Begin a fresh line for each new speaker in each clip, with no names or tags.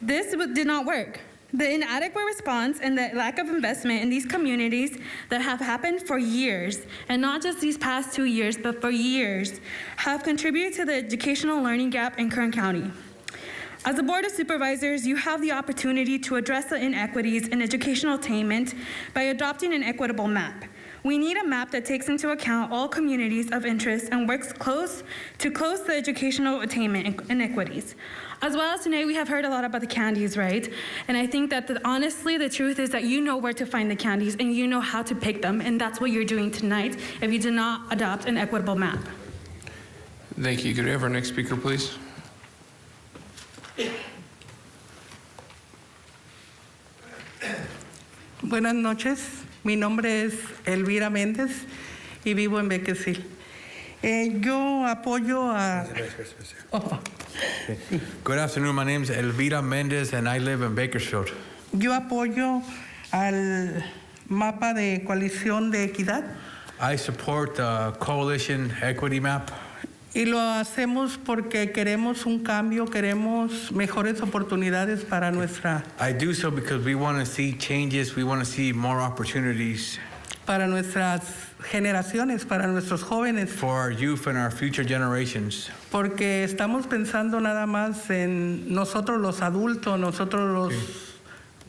This w- did not work. The inadequate response and the lack of investment in these communities that have happened for years, and not just these past two years, but for years, have contributed to the educational learning gap in Kern County. As a Board of Supervisors, you have the opportunity to address the inequities in educational attainment by adopting an equitable map. We need a map that takes into account all communities of interest and works close to close the educational attainment inequities. As well as today, we have heard a lot about the candies, right? And I think that the, honestly, the truth is that you know where to find the candies and you know how to pick them, and that's what you're doing tonight if you do not adopt an equitable map.
Thank you. Could we have our next speaker, please?
Buenas noches, mi nombre es Elvira Méndez y vivo en Bequesil. Eh, yo apoyo a... Oh,
Good afternoon. My name is Elvira Mendez, and I live in Bakersfield.
yo apoyo al mapa de coalición de equidad
I support the Coalition Equity Map,
y lo hacemos porque queremos un cambio, queremos mejores oportunidades para nuestra,
I do so because we want to see changes. We want to see more opportunities
para nuestras generaciones, para nuestros jóvenes.
for our youth and our future generations.
Porque estamos pensando nada más en nosotros los adultos, nosotros los...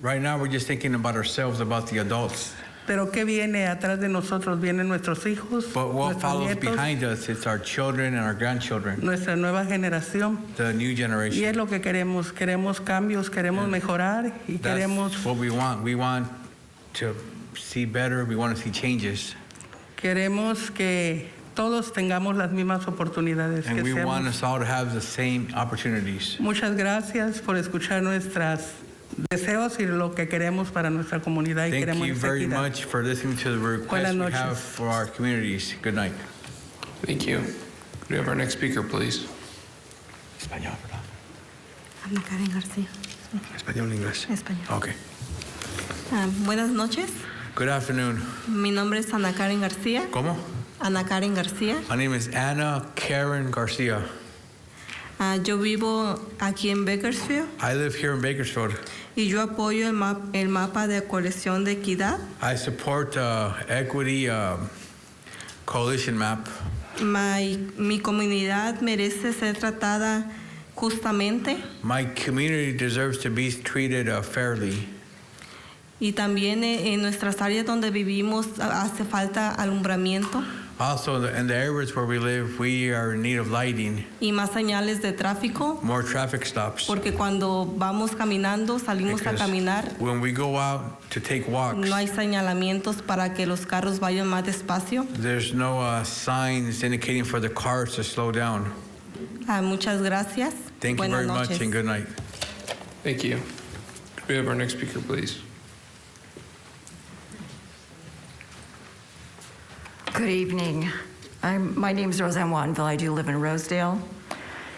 Right now, we're just thinking about ourselves, about the adults.
Pero ¿qué viene atrás de nosotros? Vienen nuestros hijos,
But what
nuestros
follows
nietos,
behind us, it's our children and our grandchildren,
nuestra nueva generación.
the new
Y es
generation.
lo que queremos. Queremos cambios, queremos mejorar y queremos,
That's what we want. We want to see better. We want to see changes.
queremos que todos tengamos las mismas oportunidades.
And
que
we
seamos.
want us all to have the same opportunities.
Muchas gracias por escuchar nuestros deseos y lo que queremos para nuestra comunidad y
Thank
queremos
you
nuestra
very
equidad.
much for listening to the request
Buenas
we
noches.
have for our communities. Good night.
Thank you. Could we have our next speaker, please?
Ana Karen García.
Español, inglés.
Español.
Okay.
Ah, buenas noches.
Good afternoon.
Mi nombre es Ana Karen García.
¿Cómo?
Ana Karen García.
My name is Anna Karen Garcia.
Ah, yo vivo aquí en Bakersfield
I live here in Bakersfield.
y yo apoyo el, ma- el mapa de colección de equidad,
I support uh, equity um, coalition map.
My- mi comunidad merece ser tratada justamente
My community deserves to be treated uh, fairly,
y también eh, en nuestras áreas donde vivimos ah, hace falta alumbramiento
also in the- in the areas where we live, we are in need of lighting,
y más señales de tráfico
more traffic stops.
porque cuando vamos caminando, salimos a
Because
caminar
When we go out to take walks,
No hay señalamientos para que los carros vayan más despacio.
There's no uh, signs indicating for the cars to slow down.
Ah, muchas gracias.
Thank you
Buenas
very
noches.
much and good night.
Thank you. Could we have our next speaker, please?
Good evening. I'm, my name's Roseanne Wattenville. I do live in Rosedale.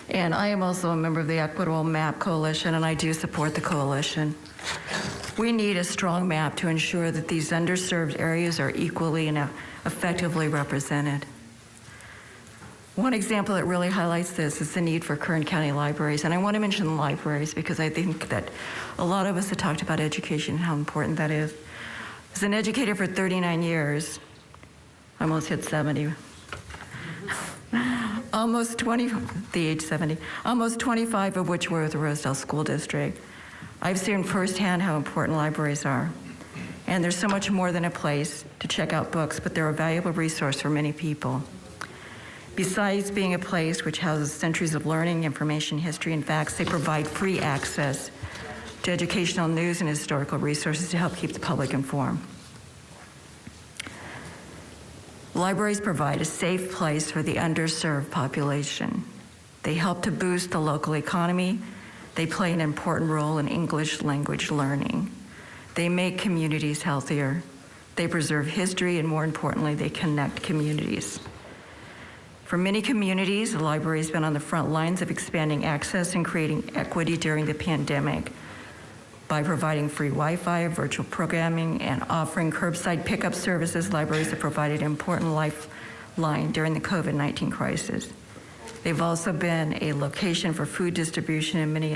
And I am also a member of the Equitable Map Coalition, and I do support the coalition. We need a strong map to ensure that these underserved areas are equally and effectively represented. One example that really highlights this is the need for Kern County libraries. And I want to mention libraries because I think that a lot of us have talked about education and how important that is. As an educator for 39 years, I almost hit 70. almost 20, the age 70, almost 25 of which were with the Rosedale School District. I've seen firsthand how important libraries are. And there's so much more than a place to check out books, but they're a valuable resource for many people. Besides being a place which houses centuries of learning, information, history, and facts, they provide free access to educational news and historical resources to help keep the public informed. Libraries provide a safe place for the underserved population. They help to boost the local economy. They play an important role in English language learning. They make communities healthier. They preserve history, and more importantly, they connect communities. For many communities, the library's been on the front lines of expanding access and creating equity during the pandemic by providing free Wi-Fi, virtual programming, and offering curbside pickup services. Libraries have provided an important lifeline during the COVID-19 crisis. They've also been a location for food distribution in many